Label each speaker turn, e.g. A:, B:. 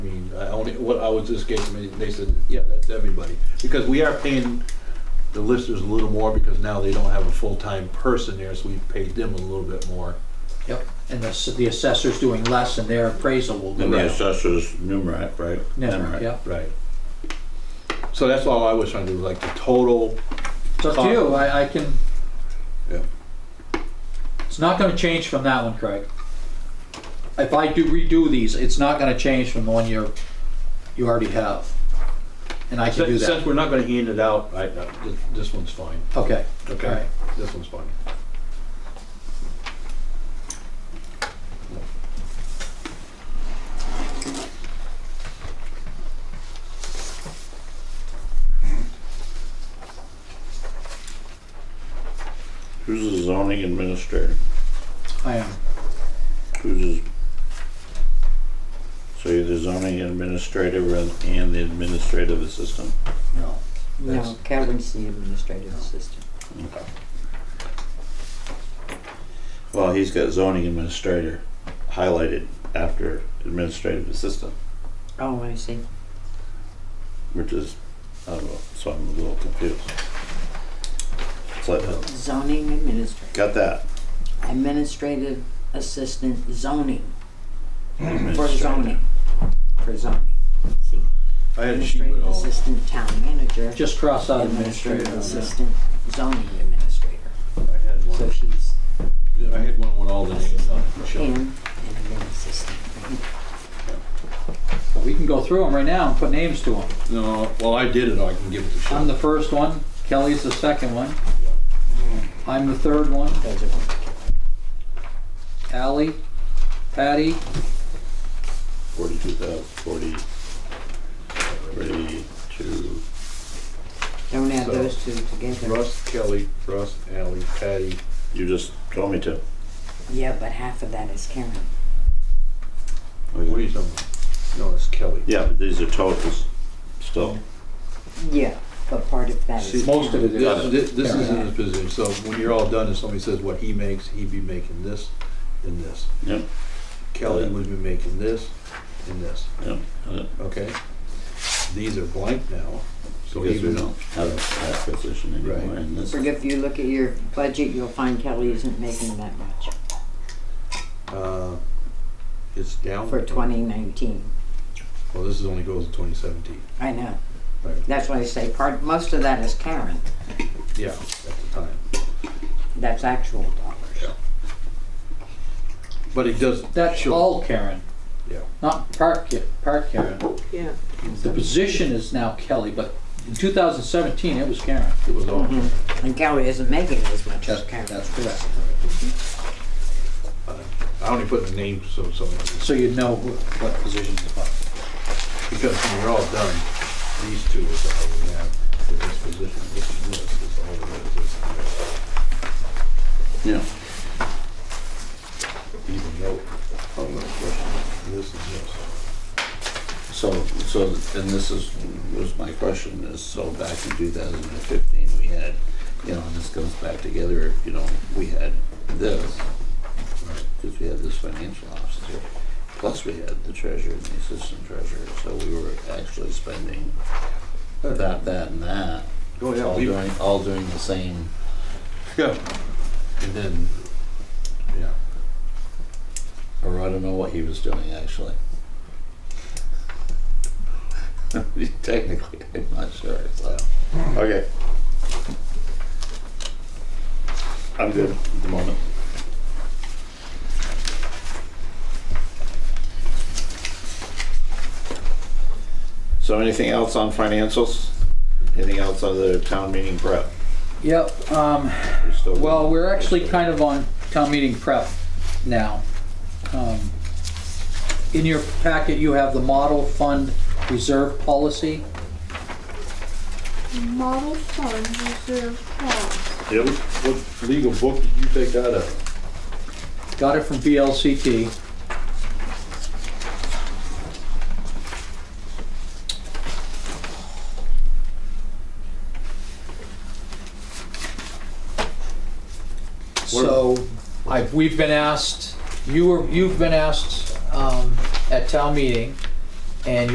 A: I only, what I was just gave me, they said, yeah, that's everybody. Because we are paying the listers a little more because now they don't have a full-time person there, so we paid them a little bit more.
B: Yep, and the, s- the assessor's doing less and their appraisal will go
C: And the
B: down.
C: assessors numeric, right?
B: Yeah, yeah.
A: Right. So that's all I was trying to do, like the total,
B: It's up to you, I, I can.
A: Yeah.
B: It's not gonna change from that one, Craig. If I do redo these, it's not gonna change from the one you're, you already have. And I can do
A: since since
B: that.
A: we're not gonna hand it out, I, uh, this, this one's fine.
B: Okay, all
A: Okay,
B: right.
A: this one's fine.
C: Who's the zoning administrator?
B: I am,
C: Who's the... So you're the zoning administrator and and the administrative assistant?
B: no.
D: No, Calvin's the administrative assistant.
C: Okay. Well, he's got zoning administrator highlighted after administrative assistant,
D: Oh, I see.
C: which is, I don't know, so I'm a little confused. So, uh,
D: Zoning administrator,
C: got that?
D: administrative assistant zoning, for
C: Administrator.
D: zoning, for zoning. See,
A: I had a sheet with
D: Administrative
A: all,
D: assistant town manager.
B: Just cross out administrative.
D: Administrative assistant zoning administrator.
A: I had
D: So
A: one,
D: she's
A: I had one with all the names on it.
D: in
A: Michelle.
D: and then assistant. right?
B: We can go through them right now and put names to them.
A: No, well, I did it, I can give it to
B: I'm
A: Sean.
B: the first one, Kelly's the second one. I'm the third one,
D: Those are,
B: Ally, Patty,
C: Forty-two thousand, forty, thirty-two,
D: don't add
A: So-
D: those two together.
A: Russ, Kelly, Russ, Ally, Patty,
C: you just told me to.
D: Yeah, but half of that is Karen.
A: what are you talking about? No, it's Kelly.
C: Yeah, but these are totals, still.
D: Yeah, but part of that is
A: See,
B: most of
D: Karen.
B: it is.
A: This, this- this is in his position, so when you're all done, if somebody says what he makes, he'd be making this and this.
C: Yep,
A: Kelly would be making this and this,
C: yep. yep.
A: okay? These are blank now, so
C: Because we
A: even,
C: don't have a acquisition anymore
A: Right.
C: in this.
D: But if you look at your budget, you'll find Kelly isn't making that much
A: uh, it's down.
D: for twenty nineteen.
A: Well, this is only goes to twenty seventeen,
D: I know.
A: right,
D: That's why I say part, most of that is Karen.
A: yeah, at the time.
D: That's actual dollars.
A: But it does.
B: That's
A: show-
B: all Karen.
A: Yeah.
B: Not Park, Ki- Park Karen.
D: Yeah.
B: The position is now Kelly, but in 2017, it was Karen.
A: It was all,
B: Mm-hmm.
D: And Kelly isn't making as much as
B: That's,
D: Karen.
B: that's correct.
A: I only put the names so, so,
B: So you'd know wh- what position to put.
A: because when you're all done, these two is all we have for this position, this is this is all there is.
C: Yeah.
A: even though, oh, no question, this is this.
C: So, so, and this is, was my question, is so back in two thousand and fifteen, we had, you know, and this comes back together, you know, we had this. Cause we had this financial officer, plus we had the treasurer and the assistant treasurer, so we were actually spending that, that and that.
A: Oh, yeah,
C: All
A: we-
C: doing, all doing the same.
A: Yeah. And then, yeah,
C: Or I don't know what he was doing actually. Technically, I'm not sure. So. Okay. I'm good at the moment. So, anything else on financials? Anything else on the town meeting prep?
B: Yep, um,
C: We still-
B: well, we're actually kind of on town meeting prep now. Um, In your packet, you have the model fund reserve policy.
E: Model Fund Reserve Fund.
C: Yep.
A: what legal book did you take that out of?
B: Got it from VLCT. So, I, we've been asked, you were, you've been asked, um, at town meeting, and